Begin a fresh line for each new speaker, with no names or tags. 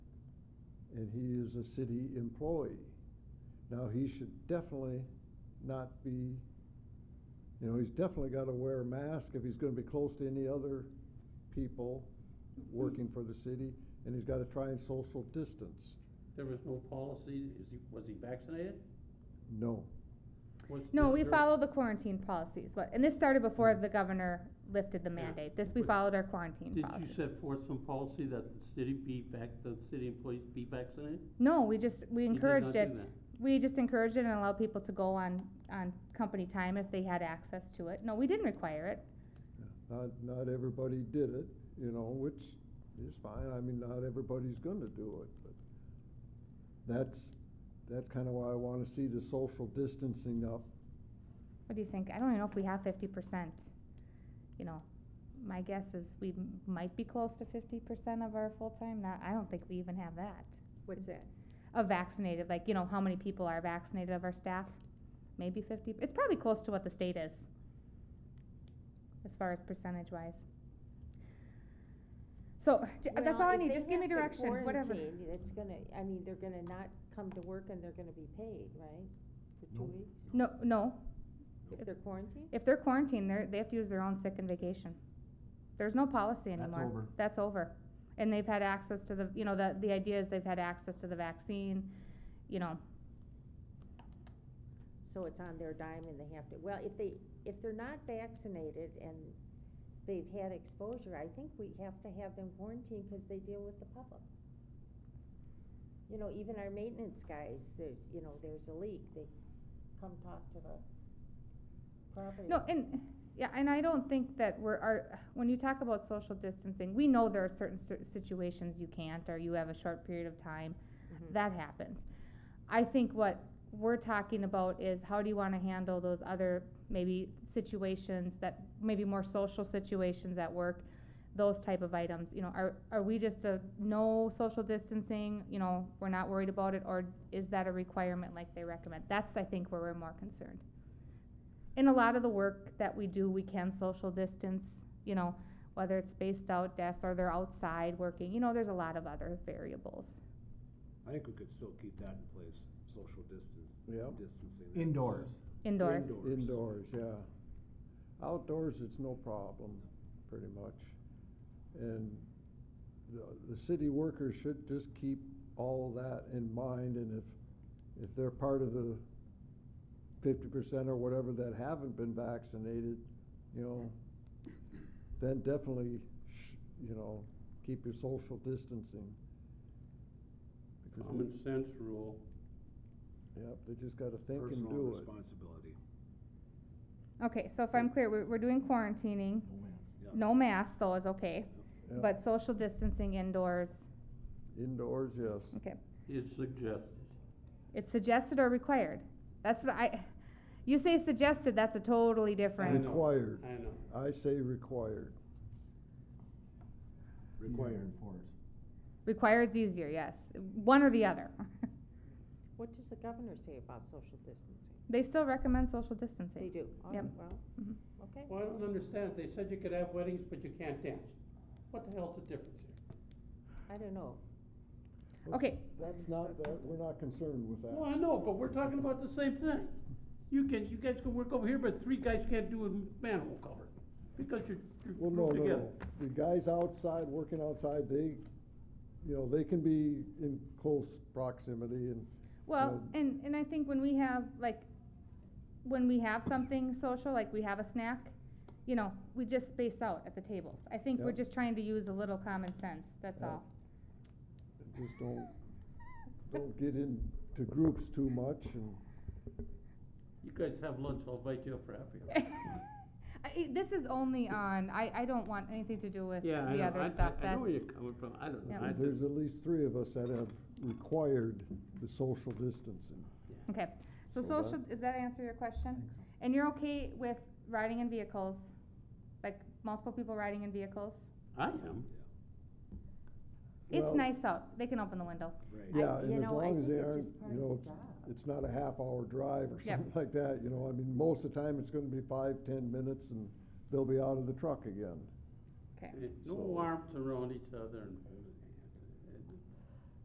and he is a city employee. Now, he should definitely not be, you know, he's definitely gotta wear a mask if he's gonna be close to any other people working for the city, and he's gotta try and social distance.
There was no policy, is he, was he vaccinated?
No,
Was-
No,
was
we
there-
follow the quarantine policies, but, and this started before the governor lifted the mandate, this, we
Mm. But
followed our quarantine
Did you
policy.
set forth some policy that the city be vac, the city employees be vaccinated?
No, we just, we
You did
encouraged
not do
it,
that.
we just encouraged it and allowed people to go on, on company time if they had access to it, no, we didn't require it.
not, not everybody did it, you know, which is fine, I mean, not everybody's gonna do it, but that's, that's kinda why I wanna see the social distancing up.
What do you think, I don't even know if we have fifty percent, you know, my guess is we m- might be close to fifty percent of our full-time, not, I don't think we even have that.
What's that?
Of vaccinated, like, you know, how many people are vaccinated of our staff? Maybe fifty, it's probably close to what the state is. As far as percentage wise. So, j- uh, that's all I need, just give me direction, whatever.
It's gonna, I mean, they're gonna not come to work and they're gonna be paid, right? For
No.
two weeks,
No, no,
if they're quarantined?
if they're quarantined, they're, they have to use their own sick and vacation. There's no policy anymore.
over.
That's over. And they've had access to the, you know, the, the idea is they've had access to the vaccine, you know,
So it's on their dime and they have to, well, if they, if they're not vaccinated and they've had exposure, I think we have to have them quarantined because they deal with the public. You know, even our maintenance guys, there's, you know, there's a leak, they come talk to the property.
No, and, yeah, and I don't think that we're, our, when you talk about social distancing, we know there are certain cer- situations you can't, or you have a short period of time,
Mhm.
that happens. I think what we're talking about is how do you wanna handle those other maybe situations that, maybe more social situations at work, those type of items, you know, are, are we just a no social distancing, you know, we're not worried about it, or is that a requirement like they recommend? That's, I think, where we're more concerned in a lot of the work that we do, we can social distance, you know, whether it's spaced out desks or they're outside working, you know, there's a lot of other variables.
I think we could still keep that in place, social distance,
Yep.
distancing. that's-
Indoors.
Indoors.
Indoor. Indoors.
Indoors, yeah. Outdoors, it's no problem, pretty much. And the, the city workers should just keep all of that in mind, and if, if they're part of the fifty percent or whatever that haven't been vaccinated, you know, then definitely, sh- you know, keep your social distancing. Because,
Common sense rule.
yep, they just gotta think and
Personal
do it.
responsibility.
Okay, so if I'm clear, we're, we're doing quarantining,
Yes.
no mask though is okay,
Yeah.
but social distancing indoors,
Indoors, yes.
okay.
is suggested.
It's suggested or required, that's what I, you say suggested, that's a totally
I
different,
know,
Required.
I know.
I say required.
Required.
required's easier, yes, one or the other.
What does the governor say about social distancing?
They still recommend social
They
distancing.
do, Mm-hmm. oh,
Yep.
well,
Mhm.
okay.
Well, I don't understand, they said you could have weddings, but you can't dance. What the hell's the difference here?
I don't know.
Okay,
That's not, that, we're not concerned with
Well,
that.
I know, but we're talking about the same thing. You can, you guys can work over here, but three guys can't do a manhole cover, because you're, you're
Well, no,
grouped
no,
together.
no. The guys outside, working outside, they, you know, they can be in close proximity and,
Well,
Um,
and, and I think when we have, like, when we have something social, like we have a snack, you know, we just space out at the tables. I think we're
Yep.
just trying to use a little common sense, that's
Yep.
all.
just don't, don't get into groups too much and,
You guys have lunch, I'll invite you up for happy hour.
I- I, this is only on, I, I don't want anything to do with the
Yeah, I know,
other
I,
stuff,
I, I know
that's,
where you're coming from, I don't know,
Yep.
I just,
there's at least three of us that have required the social distancing.
okay. So
So
social, does that answer your question? And you're okay with riding in vehicles, like multiple people riding in vehicles?
I am.
It's
Well-
nice out, they can open the window.
Right.
I-
Yeah,
you
and as
know, I
long as
think
they
it's
aren't,
just part
you
of the
know, it's,
job.
it's not a half hour drive or
Yep.
something like that, you know, I mean, most of the time, it's gonna be five, ten minutes and they'll be out of the truck again.
Okay.
Eh,
So-
No arms around each other and